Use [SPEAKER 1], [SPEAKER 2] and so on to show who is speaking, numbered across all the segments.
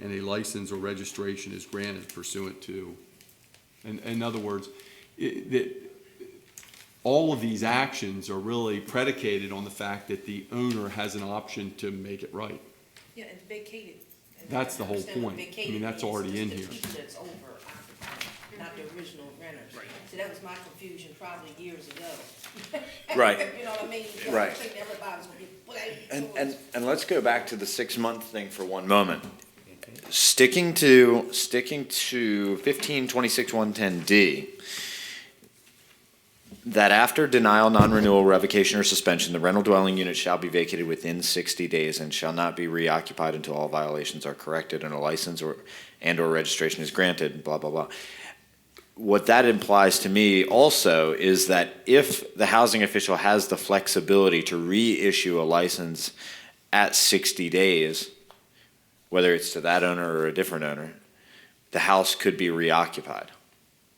[SPEAKER 1] and a license or registration is granted pursuant to. In, in other words, it, that, all of these actions are really predicated on the fact that the owner has an option to make it right.
[SPEAKER 2] Yeah, and vacated. And
[SPEAKER 1] That's the
[SPEAKER 2] I
[SPEAKER 1] whole
[SPEAKER 2] understand what
[SPEAKER 1] point. I mean,
[SPEAKER 2] vacated
[SPEAKER 1] that's
[SPEAKER 2] means,
[SPEAKER 1] already
[SPEAKER 2] just
[SPEAKER 1] in
[SPEAKER 2] the
[SPEAKER 1] here.
[SPEAKER 2] people that's over occupied, not the original renters.
[SPEAKER 3] Right.
[SPEAKER 2] So that was my confusion probably years ago.
[SPEAKER 4] Right.
[SPEAKER 2] You know what I mean? Because
[SPEAKER 4] Right.
[SPEAKER 2] I think everybody's gonna get blamed.
[SPEAKER 4] And,
[SPEAKER 2] for it.
[SPEAKER 4] and, and let's go back to the six-month thing for one moment. Sticking to, sticking to fifteen twenty-six one ten D, that after denial, non-renewal, revocation, or suspension, the rental dwelling unit shall be vacated within sixty days and shall not be reoccupied until all violations are corrected and a license or, and/or registration is granted, blah, blah, blah. what that implies to me also is that if the housing official has the flexibility to reissue a license at 60 days, whether it's to that owner or a different owner, the house could be reoccupied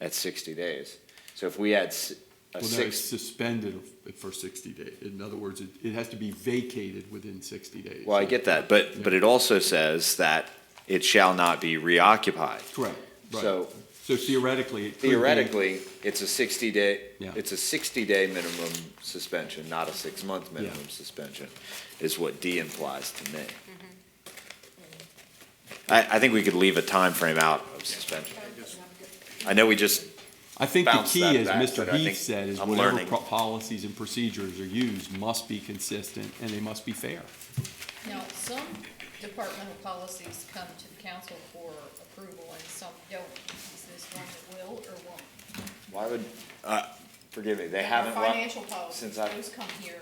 [SPEAKER 4] at 60 days. So if we had s- a
[SPEAKER 1] Well, no, it's
[SPEAKER 4] six,
[SPEAKER 1] suspended for sixty days. In other words, it, it has to be vacated within sixty days.
[SPEAKER 4] well, I get that, but but it also says that it shall not be reoccupied.
[SPEAKER 1] Correct, right.
[SPEAKER 4] So
[SPEAKER 1] So theoretically, it could be-
[SPEAKER 4] theoretically, it's a 60 day,
[SPEAKER 1] Yeah.
[SPEAKER 4] it's a 60 day minimum suspension, not a six month minimum suspension, is what D implies to me.
[SPEAKER 5] Mm-hmm.
[SPEAKER 4] I, I think we could leave a time frame out of suspension. I know we just,
[SPEAKER 1] I think the
[SPEAKER 4] bounce
[SPEAKER 1] key,
[SPEAKER 4] that
[SPEAKER 1] as
[SPEAKER 4] back,
[SPEAKER 1] Mr.
[SPEAKER 4] but I
[SPEAKER 1] Heath
[SPEAKER 4] think
[SPEAKER 1] said, is
[SPEAKER 4] I'm
[SPEAKER 1] whatever
[SPEAKER 4] learning.
[SPEAKER 1] pro- policies and procedures are used must be consistent and they must be fair.
[SPEAKER 5] Now, some departmental policies come to the council for approval and some don't. Is this one that will or won't?
[SPEAKER 4] why would, uh, forgive me, they haven't.
[SPEAKER 5] Our
[SPEAKER 4] run-
[SPEAKER 5] Financial policies,
[SPEAKER 4] since I-
[SPEAKER 5] those come here,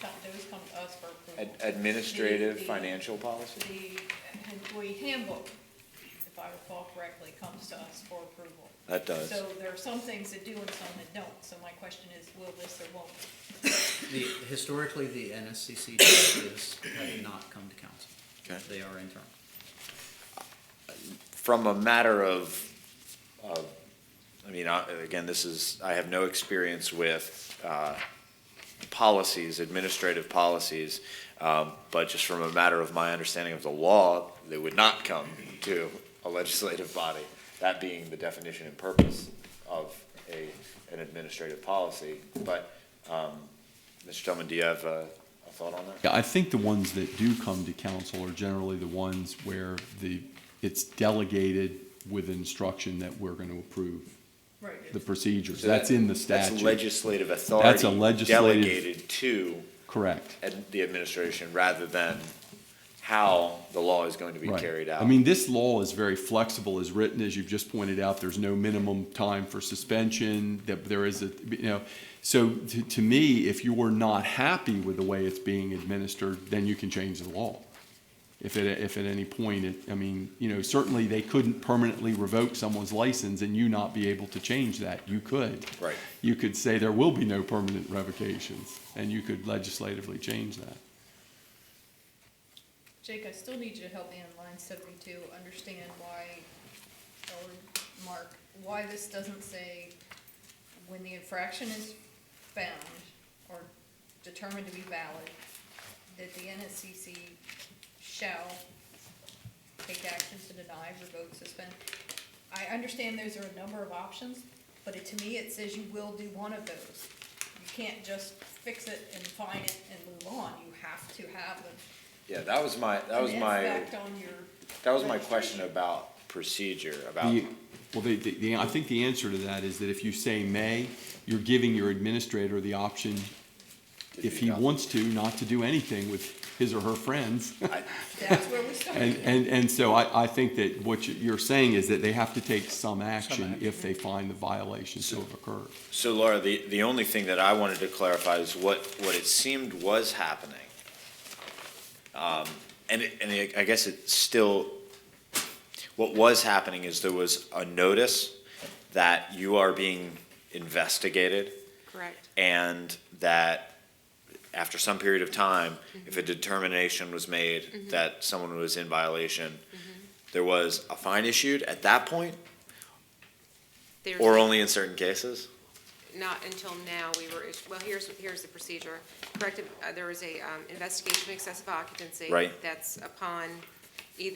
[SPEAKER 5] come- those come to us for approval.
[SPEAKER 4] Ad- Administrative,
[SPEAKER 5] The- the-
[SPEAKER 4] financial policy?
[SPEAKER 5] The employee handbook, if I recall correctly, comes to us for approval.
[SPEAKER 4] That does.
[SPEAKER 5] So there are some things that do and some that don't. So my question is, will this or won't? it?
[SPEAKER 3] The, historically, the NSCC directives have not come to council.
[SPEAKER 4] Okay.
[SPEAKER 3] They are internal.
[SPEAKER 4] from a matter of, of, I mean, I- again, this is, I have no experience with uh, policies, administrative policies, um, but just from a matter of my understanding of the law, they would not come to a legislative body, that being the definition and purpose of a, an administrative policy. But, um, Mr. Tillman, do you have a a thought on that?
[SPEAKER 1] Yeah, I think the ones that do come to council are generally the ones where the, it's delegated with instruction that we're gonna approve
[SPEAKER 5] Right.
[SPEAKER 1] the procedures.
[SPEAKER 4] So that-
[SPEAKER 1] That's in the
[SPEAKER 4] That's
[SPEAKER 1] statute.
[SPEAKER 4] legislative
[SPEAKER 1] That's a
[SPEAKER 4] authority
[SPEAKER 1] legislative-
[SPEAKER 4] delegated to
[SPEAKER 1] Correct.
[SPEAKER 4] ad- the administration rather than how the law is going to be
[SPEAKER 1] Right.
[SPEAKER 4] carried out.
[SPEAKER 1] I mean, this law is very flexible, as written, as you've just pointed out, there's no minimum time for suspension, that there is a, you know. So to, to me, if you were not happy with the way it's being administered, then you can change the law. If at, if at any point, it, I mean, you know, certainly they couldn't permanently revoke someone's license and you not be able to change that. You could.
[SPEAKER 4] Right.
[SPEAKER 1] You could say there will be no permanent revocations, and you could legislatively change that.
[SPEAKER 5] Jake, I still need you to help me on line seventy-two, understand why, or Mark, why this doesn't say when the infraction is found or determined to be valid, that the NSCC shall take action to deny, revoke, suspend. I understand those are a number of options, but it, to me, it says you will do one of those. You can't just fix it and fine it and move on. You have to have an
[SPEAKER 4] Yeah, that was my, that was
[SPEAKER 5] an
[SPEAKER 4] my,
[SPEAKER 5] impact on your-
[SPEAKER 4] that was my question about procedure, about,
[SPEAKER 1] The- Well, the, the, the- I think the answer to that is that if you say may, you're giving your administrator the option, if he wants to, not to do anything with his or her friends.
[SPEAKER 4] I-
[SPEAKER 5] That's where we
[SPEAKER 1] And,
[SPEAKER 5] started.
[SPEAKER 1] and, and so I, I think that what you- you're saying is that they have to take some action if they find the violations to have occurred.
[SPEAKER 4] So Laura, the, the only thing that I wanted to clarify is what, what it seemed was happening. Um, and it, and it, I guess it still, what was happening is there was a notice that you are being investigated.
[SPEAKER 6] Correct.
[SPEAKER 4] and that after some period of time, if a determination was made that someone was in violation, there was a fine issued at that point,
[SPEAKER 6] There's
[SPEAKER 4] or only in certain cases.
[SPEAKER 6] not until now, we were, is- well, here's, here's the procedure. Corrective, uh, there was a um, investigation of excessive occupancy.
[SPEAKER 4] Right.
[SPEAKER 6] That's upon